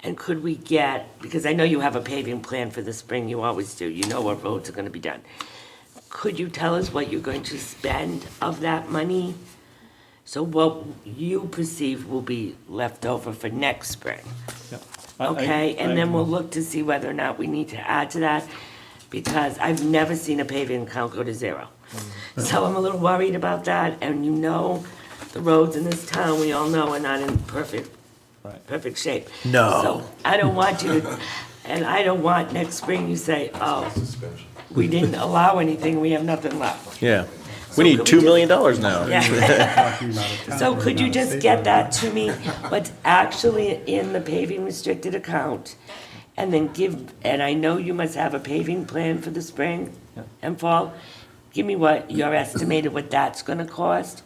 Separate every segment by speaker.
Speaker 1: And could we get, because I know you have a paving plan for the spring, you always do, you know what roads are gonna be done. Could you tell us what you're going to spend of that money? So what you perceive will be left over for next spring?
Speaker 2: Yeah. I- I-
Speaker 1: Okay,
Speaker 2: I-
Speaker 1: and then we'll look to see whether or not we need to add to that, because I've never seen a paving account go to zero.
Speaker 2: Mm-hmm.
Speaker 1: So I'm a little worried about that, and you know, the roads in this town, we all know, are not in perfect,
Speaker 2: Right.
Speaker 1: perfect shape.
Speaker 3: No.
Speaker 1: So I don't want you to, and I don't want next spring you say, oh, we didn't allow anything, we have nothing left.
Speaker 3: Yeah. We need $2 million now.
Speaker 1: Yeah.
Speaker 4: Talking about a town
Speaker 1: So
Speaker 4: road,
Speaker 1: could you
Speaker 4: not a
Speaker 1: just
Speaker 4: state
Speaker 1: get
Speaker 4: road.
Speaker 1: that to me, what's actually in the paving restricted account? And then give, and I know you must have a paving plan for the spring and fall. Give me what you're estimated what that's gonna cost.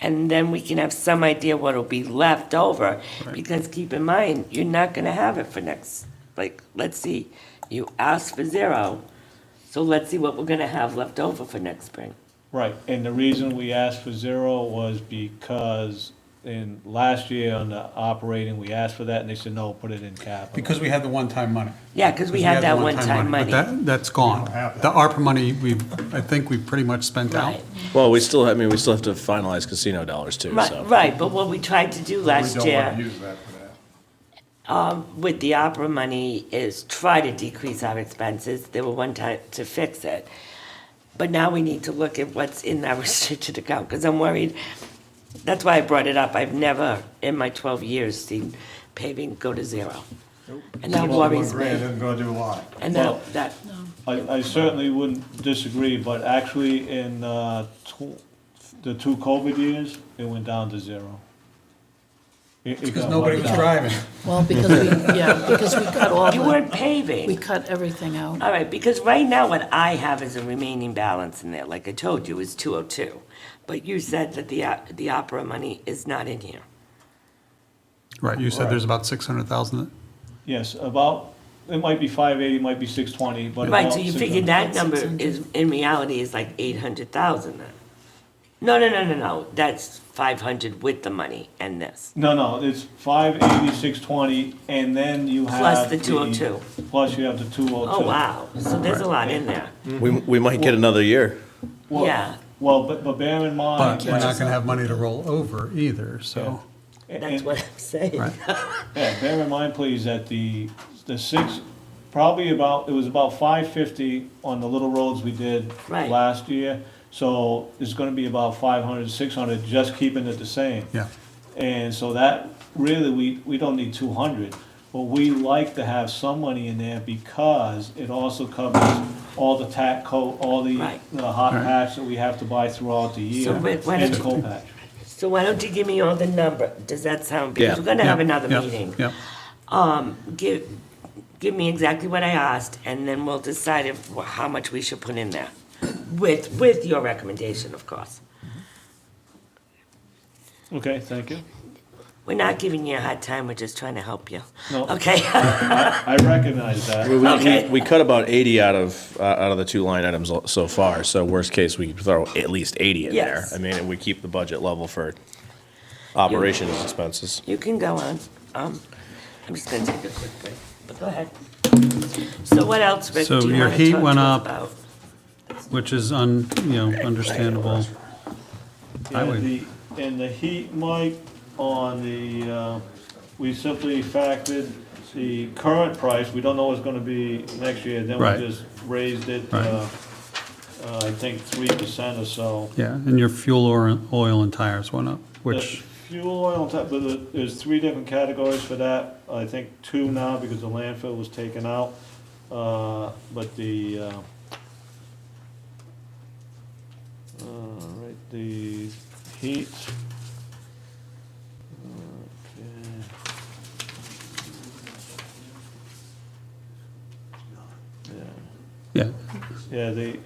Speaker 1: And then we can have some idea what'll be left over. Because keep in mind, you're not gonna have it for next, like, let's see, you asked for zero. So let's see what we're gonna have left over for next spring.
Speaker 2: Right, and the reason we asked for zero was because in last year on the operating, we asked for that and they said, no, put it in capital.
Speaker 4: Because we had the one-time money.
Speaker 1: Yeah, because we had
Speaker 4: the
Speaker 1: that one-time money.
Speaker 4: But that, that's gone. The ARPA money, we, I think we pretty much spent out.
Speaker 1: Right.
Speaker 3: Well, we still, I mean, we still have to finalize casino dollars too, so.
Speaker 1: Right, right, but what we tried to do
Speaker 5: We
Speaker 1: last
Speaker 5: don't want to
Speaker 1: year um,
Speaker 5: use that for that.
Speaker 1: with the opera money is try to decrease our expenses. There were one time to fix it. But now we need to look at what's in that restricted account, because I'm worried. That's why I brought it up. I've never, in my twelve years, seen paving go to zero. And that
Speaker 5: Well, one
Speaker 1: worries
Speaker 5: grand
Speaker 1: me.
Speaker 5: Isn't gonna do a lot.
Speaker 1: And
Speaker 2: Well-
Speaker 1: that, that,
Speaker 2: I, I certainly wouldn't disagree, but actually in, uh, tw- the two COVID years, it went down to zero.
Speaker 4: Because nobody was driving.
Speaker 6: Well, because we, yeah, because we cut all
Speaker 1: you
Speaker 6: the,
Speaker 1: weren't paving.
Speaker 6: we cut everything out.
Speaker 1: All right, because right now what I have is a remaining balance in there, like I told you, is two oh two. But you said that the, o- the opera money is not in here.
Speaker 4: Right, you said there's about 600,000.
Speaker 2: Yes, about, it might be five eighty, might be six twenty, but.
Speaker 1: Right,
Speaker 2: about
Speaker 1: so you
Speaker 2: 600.
Speaker 1: figured that number is, in reality, is like eight hundred thousand then? No, no, no, no, no, that's five hundred with the money and this.
Speaker 2: No, no, it's five eighty, six twenty, and then you have.
Speaker 1: Plus the 202.
Speaker 2: Plus you have the two oh two.
Speaker 1: Oh, wow, so there's a lot in there.
Speaker 3: We, we might get another year.
Speaker 1: Yeah.
Speaker 2: Well, but, but bear in mind.
Speaker 4: But we're not going to have money to roll over either, so,
Speaker 2: and-
Speaker 1: That's what I'm saying.
Speaker 4: right?
Speaker 2: Yeah, bear in mind, please, that the, the six, probably about, it was about five fifty on the little roads we did
Speaker 1: Right.
Speaker 2: last year. So it's gonna be about 500, 600, just keeping it the same.
Speaker 4: Yeah.
Speaker 2: And so that, really, we, we don't need two hundred, but we like to have some money in there because it also covers all the tack coat, all the,
Speaker 1: Right.
Speaker 2: the hot patch that we have to buy throughout the year.
Speaker 1: Rick, why
Speaker 2: And
Speaker 1: don't
Speaker 2: cold patch.
Speaker 1: So why don't you give me all the number, does that sound, because
Speaker 3: Yeah.
Speaker 1: we're gonna have
Speaker 4: Yeah,
Speaker 1: another
Speaker 4: yeah,
Speaker 1: meeting.
Speaker 4: Yeah,
Speaker 1: Give, give me exactly what I asked, and then we'll decide if, how much we should put in there. With, with your recommendation, of course.
Speaker 2: Okay, thank you.
Speaker 1: We're not giving you a hard time, we're just trying to help you.
Speaker 2: No.
Speaker 1: Okay?
Speaker 2: I recognize that.
Speaker 3: We, we- we,
Speaker 1: Okay.
Speaker 3: we cut about eighty out of, uh, out of the two line items al- so far, so worst case, we throw at least eighty in there.
Speaker 1: Yes.
Speaker 3: I mean, and we keep the budget level for operations expenses.
Speaker 1: You can go on. Um, I'm just gonna take a quick break, but go ahead. So what else, Rick,
Speaker 4: So
Speaker 1: do you
Speaker 4: your
Speaker 1: wanna
Speaker 4: heat
Speaker 1: talk to
Speaker 4: went
Speaker 1: us
Speaker 4: up.
Speaker 1: about?
Speaker 4: which is, un you know, understandable. I
Speaker 2: And
Speaker 4: would-
Speaker 2: the, and the heat, Mike, on the, uh, we simply factored the current price, we don't know what's gonna be next year, then
Speaker 4: Right.
Speaker 2: we just raised it,
Speaker 4: Right.
Speaker 2: uh, uh, I think three percent or so.
Speaker 4: Yeah, and your fuel, or- oil, and tires went up,
Speaker 2: The
Speaker 4: which,
Speaker 2: Fuel oil, type, but there- there's three different categories for that, I think two now because the landfill was taken out, uh, but the, uh, uh, right, the heat. Uh, Okay. Yeah.
Speaker 4: yeah,
Speaker 2: Yeah, the,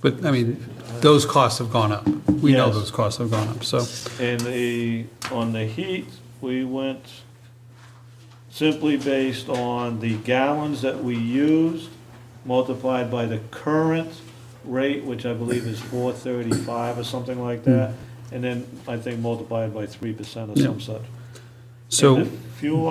Speaker 4: but, I mean, those costs have gone up. We know
Speaker 2: Yes.
Speaker 4: those costs have gone up, so,
Speaker 2: And the, on the heat, we went simply based on the gallons that we used multiplied by the current rate, which I believe is four thirty-five or something like that, and then I think multiplied by three percent or some such.
Speaker 4: so.
Speaker 2: And the Fuel